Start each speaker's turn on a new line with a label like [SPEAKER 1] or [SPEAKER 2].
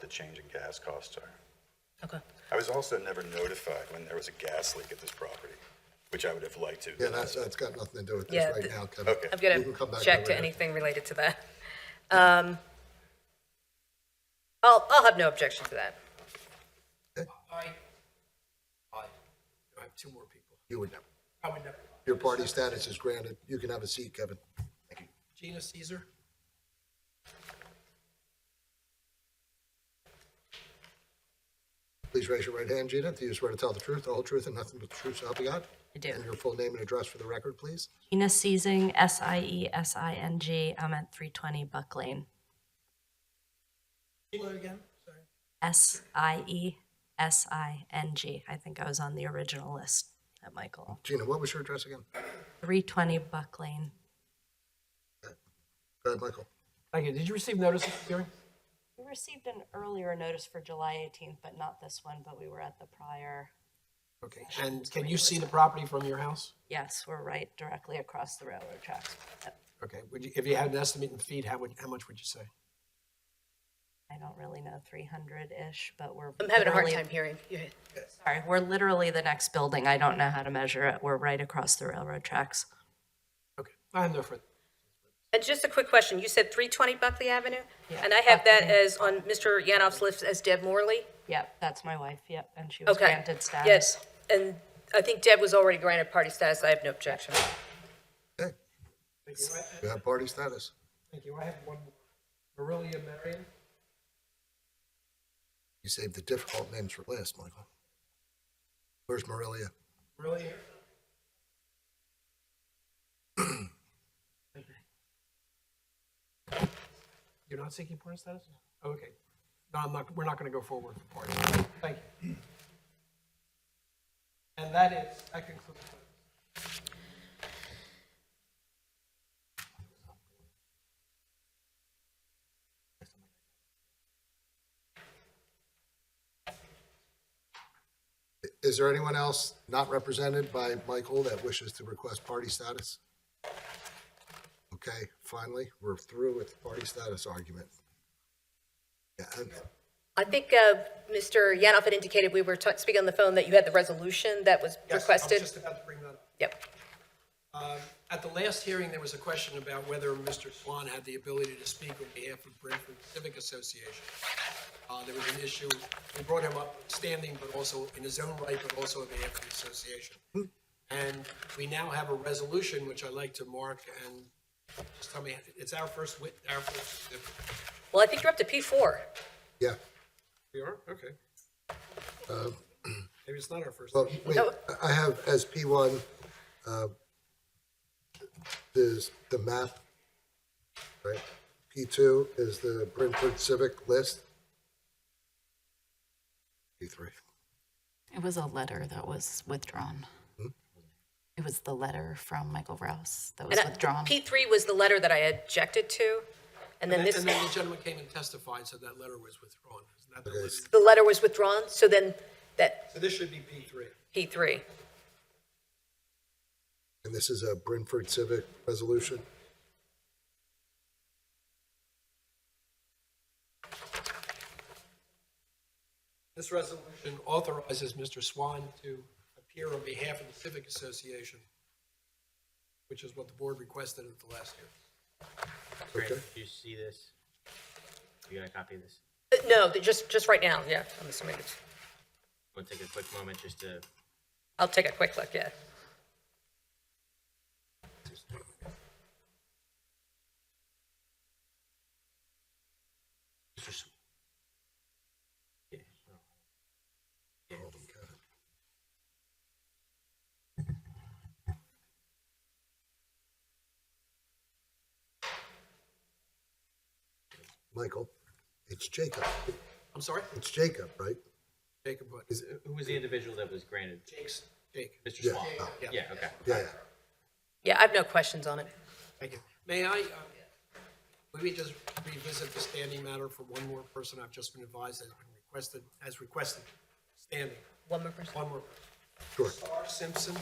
[SPEAKER 1] the change in gas costs are.
[SPEAKER 2] Okay.
[SPEAKER 1] I was also never notified when there was a gas leak at this property, which I would have liked to.
[SPEAKER 3] Yeah, that's, that's got nothing to do with this
[SPEAKER 2] Yeah,
[SPEAKER 3] right
[SPEAKER 2] th-
[SPEAKER 3] now, Kevin.
[SPEAKER 1] Okay.
[SPEAKER 2] I'm
[SPEAKER 3] We can come
[SPEAKER 2] gonna
[SPEAKER 3] back
[SPEAKER 2] check
[SPEAKER 3] that
[SPEAKER 2] to
[SPEAKER 3] way.
[SPEAKER 2] anything related to that. Um, I'll, I'll have no objection to that.
[SPEAKER 4] Aye. Aye. I have two more people.
[SPEAKER 3] You would never.
[SPEAKER 4] I would never.
[SPEAKER 3] Your party status is granted. You can have a seat, Kevin.
[SPEAKER 4] Gina Caesar?
[SPEAKER 3] Please raise your right hand, Gina. Do you swear to tell the truth, the whole truth, and nothing but the truth, so help you God?
[SPEAKER 5] I do.
[SPEAKER 3] And your full name and address for the record, please.
[SPEAKER 5] Gina Seizing, S I E S I N G. I'm at 320 Buck Lane.
[SPEAKER 4] again, sorry.
[SPEAKER 5] S I E S I N G. I think I was on the original list at Michael.
[SPEAKER 3] Gina, what was your address again?
[SPEAKER 5] 320 Buck Lane.
[SPEAKER 3] Go ahead, Michael.
[SPEAKER 4] Thank you. Did you receive notice of the hearing?
[SPEAKER 5] We received an earlier notice for July 18th, but not this one, but we were at the prior.
[SPEAKER 4] Okay, and can you see the property from your house?
[SPEAKER 5] Yes, we're right directly across the railroad tracks. Yep.
[SPEAKER 4] Okay, would you, if you had an estimate in feet, how would, how much would you say?
[SPEAKER 5] I don't really know, 300-ish, but we're.
[SPEAKER 2] I'm having a hard
[SPEAKER 5] literally-
[SPEAKER 2] time hearing. you.
[SPEAKER 5] Sorry, we're literally the next building. I don't know how to measure it. We're right across the railroad tracks.
[SPEAKER 4] Okay, I have no further.
[SPEAKER 2] And just a quick question, you said 320 Buckley Avenue? And I have that as on Mr. Yanoff's list as Deb Morley?
[SPEAKER 5] Yep, that's my wife, yep, and she was
[SPEAKER 2] Okay.
[SPEAKER 5] granted status.
[SPEAKER 2] Yes, and I think Deb was already granted party status, I have no objection.
[SPEAKER 3] Hey,
[SPEAKER 4] Thank you. I-
[SPEAKER 3] you have party status.
[SPEAKER 4] Thank you. I have one. Marilia Marion?
[SPEAKER 3] You saved the difficult names for last, Michael. Where's Marilia?
[SPEAKER 4] Marilia? Thank you. You're not seeking point of status? Oh, Okay. No, I'm not, we're not gonna go forward for party. Thank you. And that is, that concludes.
[SPEAKER 3] Is there anyone else not represented by Michael that wishes to request party status? Okay, finally, we're through with the party status argument. Yeah, and
[SPEAKER 2] I think uh, Mr. Yanoff had indicated, we were ta- speaking on the phone, that you had the resolution that was
[SPEAKER 4] I was
[SPEAKER 2] requested?
[SPEAKER 4] just about to bring that up.
[SPEAKER 2] Yep,
[SPEAKER 4] At the last hearing, there was a question about whether Mr. Swan had the ability to speak on behalf of Branford Civic Association. Uh, there was an issue, we brought him up standing, but also in his own right, but also on behalf of the association. And we now have a resolution, which I'd like to mark, and just tell me, it's our first wit, our first.
[SPEAKER 2] well, I think you're up to P4.
[SPEAKER 3] yeah,
[SPEAKER 4] We are, okay. Maybe it's not our first.
[SPEAKER 3] but wait,
[SPEAKER 2] No.
[SPEAKER 3] I have as P1, uh, is the map, right? P2 is the Brentford Civic List. P3,
[SPEAKER 6] It was a letter that was withdrawn.
[SPEAKER 2] Hmm?
[SPEAKER 6] It was the letter from Michael Rouse that was
[SPEAKER 2] And I-
[SPEAKER 6] withdrawn.
[SPEAKER 2] P3 was the letter that I objected to, and then
[SPEAKER 4] And
[SPEAKER 2] this,
[SPEAKER 4] and then the gentleman came and testified, so that letter was withdrawn. Isn't that the list?
[SPEAKER 2] the letter was withdrawn, so then that
[SPEAKER 4] So this should be P three.
[SPEAKER 2] P3.
[SPEAKER 3] and this is a Brentford Civic Resolution.
[SPEAKER 4] This resolution authorizes Mr. Swan to appear on behalf of the Civic Association, which is what the board requested at the last hearing.
[SPEAKER 7] Grant,
[SPEAKER 3] Okay.
[SPEAKER 7] do you see this? You gonna copy this?
[SPEAKER 2] Uh, No, th- just, just right now, yeah, I'm assuming it's,
[SPEAKER 7] We'll take a quick moment just to,
[SPEAKER 2] I'll take a quick look, yeah.
[SPEAKER 7] Mr. Sw- Yeah, no. Yeah.
[SPEAKER 3] Michael, it's Jacob.
[SPEAKER 4] I'm sorry?
[SPEAKER 3] It's Jacob, right?
[SPEAKER 4] Jacob, what?
[SPEAKER 3] Is-
[SPEAKER 7] Who was the individual that was granted?
[SPEAKER 4] Jake's, Jake.
[SPEAKER 7] Mr.
[SPEAKER 3] Yeah,
[SPEAKER 7] Swan?
[SPEAKER 3] yeah,
[SPEAKER 4] yeah.
[SPEAKER 7] Yeah, okay.
[SPEAKER 3] Yeah, yeah.
[SPEAKER 2] Yeah, I have no questions on it.
[SPEAKER 4] Thank you. May I, uh, maybe just revisit the standing matter for one more person I've just been advised has been requested, has requested standing.
[SPEAKER 2] One more person.
[SPEAKER 4] One more.
[SPEAKER 3] Sure.
[SPEAKER 4] Star Simpson,